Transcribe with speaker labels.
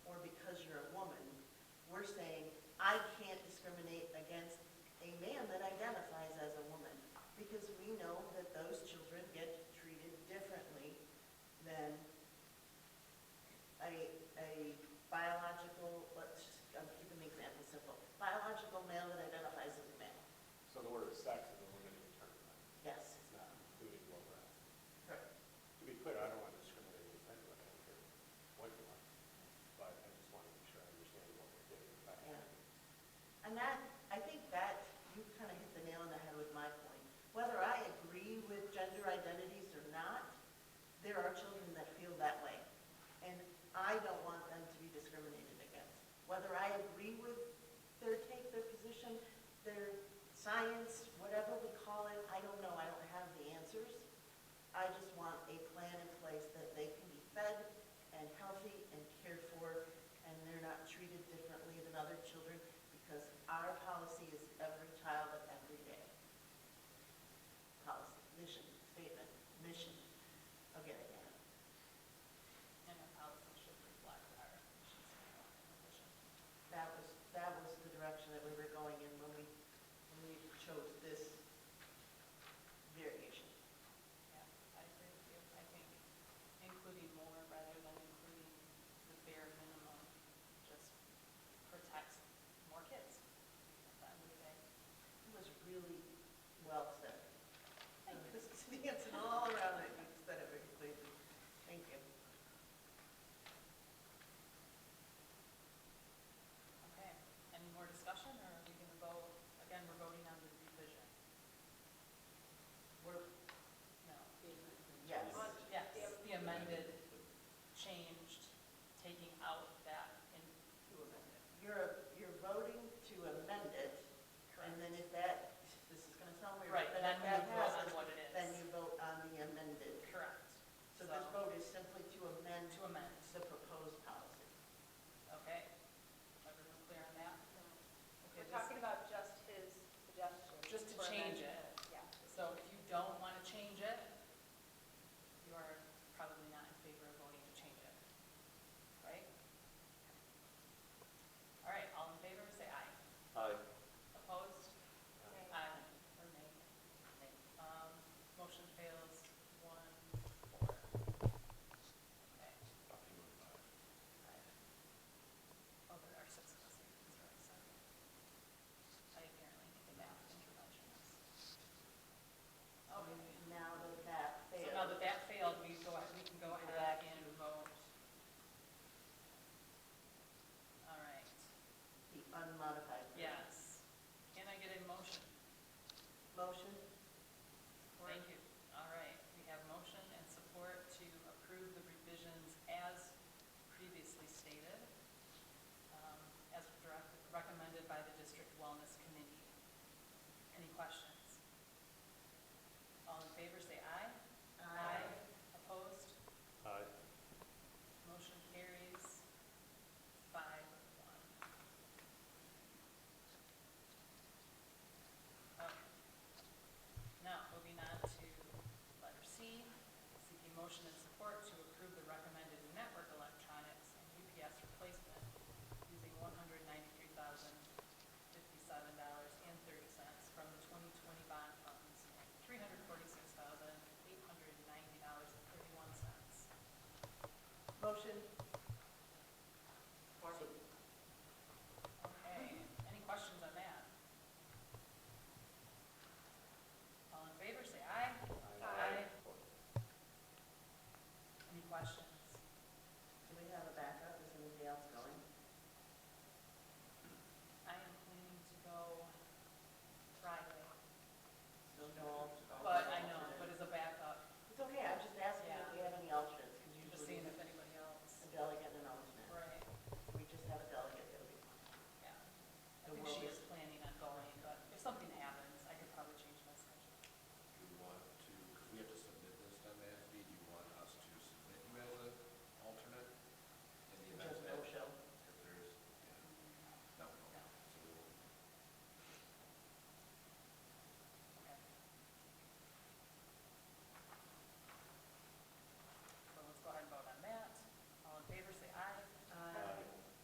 Speaker 1: agree with their take, their position, their science, whatever we call it, I don't know, I don't have the answers. I just want a plan in place that they can be fed and healthy and cared for, and they're not treated differently than other children, because our policy is every child at every day. Policy, mission, statement, mission, I'll get it down.
Speaker 2: And the policy should reflect our mission statement and vision.
Speaker 1: That was, that was the direction that we were going in when we, when we chose this variation.
Speaker 2: Yeah, I agree with you. I think including more rather than including the bare minimum just protects more kids. That would be,
Speaker 1: It was really well said.
Speaker 2: Thank you.
Speaker 1: This is the answer all around it, you said it very clearly. Thank you.
Speaker 2: okay. Any more discussion or are we going to vote? Again, we're voting on the revision. We're, no.
Speaker 1: Yes.
Speaker 2: Yes, the amended, changed, taking out that in. To amended.
Speaker 1: You're, you're voting to amend it, and then if that, this is gonna sound weird.
Speaker 2: Right,
Speaker 1: but
Speaker 2: then
Speaker 1: if
Speaker 2: we
Speaker 1: that
Speaker 2: vote on
Speaker 1: passes,
Speaker 2: what it is.
Speaker 1: Then you vote on the amended.
Speaker 2: Correct.
Speaker 1: So this vote is simply to amend
Speaker 2: To amend,
Speaker 1: the proposed policy.
Speaker 2: okay? Everyone clear on that? Okay,
Speaker 3: We're
Speaker 2: this-
Speaker 3: talking about just his suggestion.
Speaker 2: Just to
Speaker 3: for
Speaker 2: change it.
Speaker 3: amendment. Yeah.
Speaker 2: So if you don't want to change it, you are probably not in favor of voting to change it, right? All right, all in favor, say aye.
Speaker 4: Aye.
Speaker 2: Opposed?
Speaker 3: Okay.
Speaker 2: Aye. Or nay? Nay. Um, Motion fails one, four. Okay. Oh, there are six of us here, sorry, sorry. I apparently need the math interventionist. Okay,
Speaker 1: Now that that
Speaker 2: Oh, so now
Speaker 1: fails,
Speaker 2: that that failed, we go, we can go ahead and vote. All right,
Speaker 1: the unmodified. version.
Speaker 2: yes. Can I get a motion?
Speaker 1: Motion?
Speaker 2: Thank you. All right, we have motion and support to approve the revisions as previously stated, um, as direct- recommended by the district wellness committee. Any questions?